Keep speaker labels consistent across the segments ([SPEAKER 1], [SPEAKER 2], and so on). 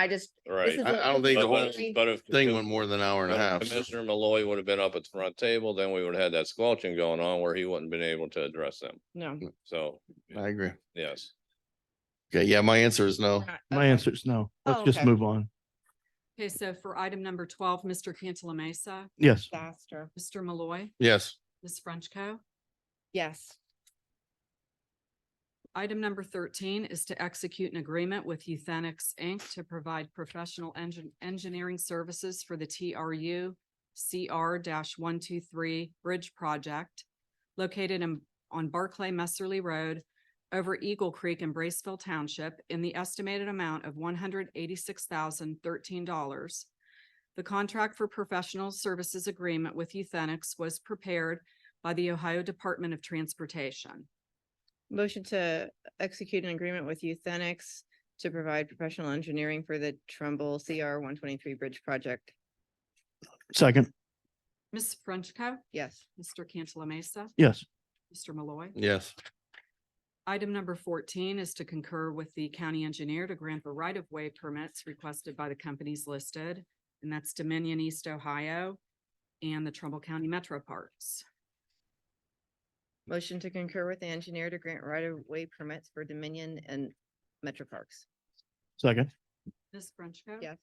[SPEAKER 1] I just,
[SPEAKER 2] Right.
[SPEAKER 1] is
[SPEAKER 3] I, I don't think
[SPEAKER 2] But
[SPEAKER 3] the
[SPEAKER 2] but
[SPEAKER 3] whole
[SPEAKER 2] if- but if.
[SPEAKER 3] thing went more than an hour and a
[SPEAKER 2] but
[SPEAKER 3] half.
[SPEAKER 2] if Commissioner Malloy would have been up at the front table, then we would have had that squelching going on where he wouldn't been able to address them.
[SPEAKER 1] no.
[SPEAKER 2] So,
[SPEAKER 3] I agree.
[SPEAKER 2] yes.
[SPEAKER 3] Okay, yeah, Oh, my answer is no.
[SPEAKER 1] not-
[SPEAKER 4] My
[SPEAKER 1] okay.
[SPEAKER 4] answer is no.
[SPEAKER 1] Oh,
[SPEAKER 4] Let's just
[SPEAKER 1] okay.
[SPEAKER 4] move on.
[SPEAKER 5] Okay, so for item number twelve, Mr. Cantala Mesa,
[SPEAKER 4] Yes.
[SPEAKER 1] Disaster.
[SPEAKER 5] Mr. Malloy,
[SPEAKER 3] Yes,
[SPEAKER 5] Ms. Frenchco.
[SPEAKER 1] Yes,
[SPEAKER 5] Item number thirteen is to execute an agreement with Euthenix Inc. to provide professional engine, engineering services for the TRU CR one two three Bridge Project located in, on Barclay Messerly Road over Eagle Creek in Braceville Township in the estimated amount of one hundred eighty-six thousand thirteen dollars. The contract for professional services agreement with Euthenix was prepared by the Ohio Department of Transportation.
[SPEAKER 1] motion to execute an agreement with Euthenix to provide professional engineering for the Trumbull CR one twenty-three bridge project.
[SPEAKER 4] Second.
[SPEAKER 5] Ms. Frenchco.
[SPEAKER 1] Yes,
[SPEAKER 5] Mr. Cantala Mesa,
[SPEAKER 4] Yes.
[SPEAKER 5] Mr. Malloy.
[SPEAKER 3] yes,
[SPEAKER 5] Item number fourteen is to concur with the county engineer to grant the right-of-way permits requested by the companies listed, and that's Dominion East Ohio and the Trumbull County Metro Parks.
[SPEAKER 1] motion to concur with the engineer to grant right-of-way permits for Dominion and Metro Parks.
[SPEAKER 4] Second.
[SPEAKER 5] Ms. Frenchco.
[SPEAKER 1] Yes,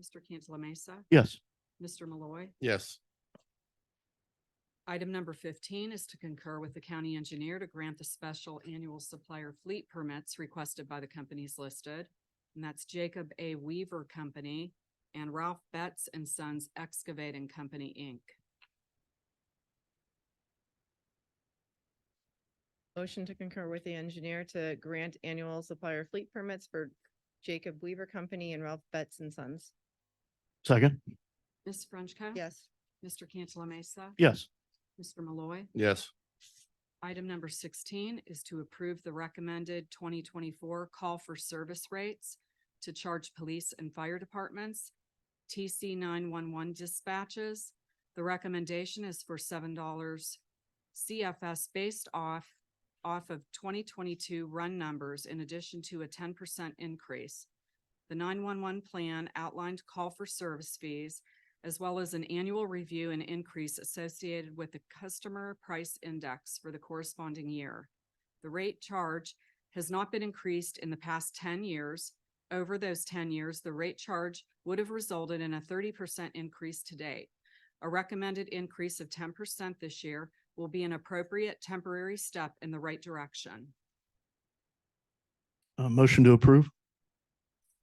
[SPEAKER 5] Mr. Cantala Mesa,
[SPEAKER 4] Yes.
[SPEAKER 5] Mr. Malloy.
[SPEAKER 3] yes,
[SPEAKER 5] Item number fifteen is to concur with the county engineer to grant the special annual supplier fleet permits requested by the companies listed. And that's Jacob A. Weaver Company and Ralph Betts and Sons Excavating Company, Inc.
[SPEAKER 1] motion to concur with the engineer to grant annual supplier fleet permits for Jacob Weaver Company and Ralph Betts and Sons.
[SPEAKER 4] Second.
[SPEAKER 5] Ms. Frenchco.
[SPEAKER 1] Yes,
[SPEAKER 5] Mr. Cantala Mesa.
[SPEAKER 4] Yes.
[SPEAKER 5] Mr. Malloy.
[SPEAKER 3] yes,
[SPEAKER 5] Item number sixteen is to approve the recommended twenty twenty-four call for service rates to charge police and fire departments, TC nine-one-one dispatches. The recommendation is for seven dollars CFS based off, off of twenty twenty-two run numbers in addition to a ten percent increase. The nine-one-one plan outlined call for service fees as well as an annual review and increase associated with the customer price index for the corresponding year. The rate charge has not been increased in the past ten years. Over those ten years, the rate charge would have resulted in a thirty percent increase to date. A recommended increase of ten percent this year will be an appropriate temporary step in the right direction.
[SPEAKER 4] Uh, motion to approve.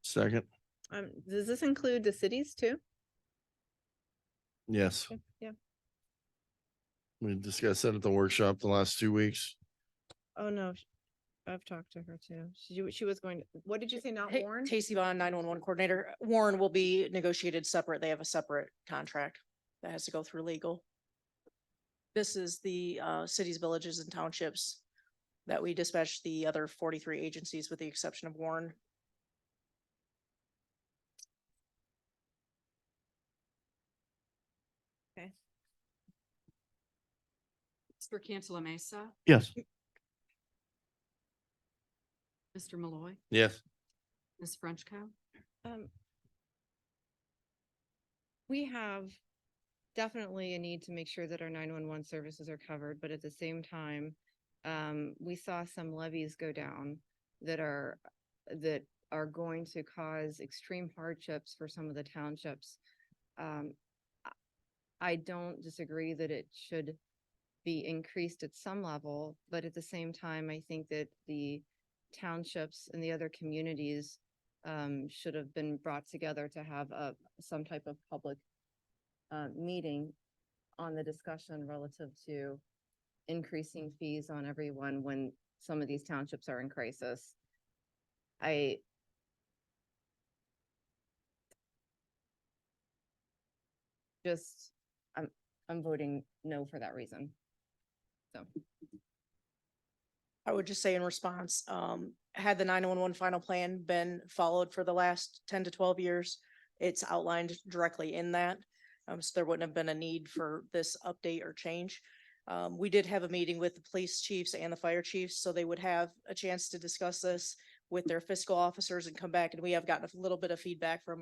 [SPEAKER 3] second,
[SPEAKER 1] um, does this include the cities too?
[SPEAKER 3] yes.
[SPEAKER 1] Yeah.
[SPEAKER 3] We discussed that at the workshop the last two weeks.
[SPEAKER 1] Oh, no. sh- I've talked to her too. She, w- she was going, to- what did you say, not
[SPEAKER 6] Ta-
[SPEAKER 1] Warren?
[SPEAKER 6] Tacey Vaughn, nine one one coordinator. Warren will be negotiated separate. They have a separate contract that has to go through legal. This is the uh cities, villages and townships that we dispatch the other forty-three agencies with the exception of Warren.
[SPEAKER 5] Mr. Cantala Mesa,
[SPEAKER 4] Yes.
[SPEAKER 5] Mr. Malloy,
[SPEAKER 3] Yes,
[SPEAKER 5] Ms. Frenchco.
[SPEAKER 1] Um, We have definitely a need to make sure that our nine-one-one services are covered, but at the same time, um, we saw some levies go down that are, that are going to cause extreme hardships for some of the townships. Um, I- I don't disagree that it should be increased at some level, but at the same time, I think that the townships and the other communities um, should have been brought together to have a, some type of public uh, meeting on the discussion relative to increasing fees on everyone when some of these townships are in crisis. I just, I'm, I'm voting no for that reason. So,
[SPEAKER 6] I would just say in response, um, had the nine one one final plan been followed for the last ten to twelve years, it's outlined directly in that. Um, so there wouldn't have been a need for this update or change. Um, we did have a meeting with the police chiefs and the fire chiefs, so they would have a chance to discuss this. with their fiscal officers and come back. And we have gotten a little bit of feedback from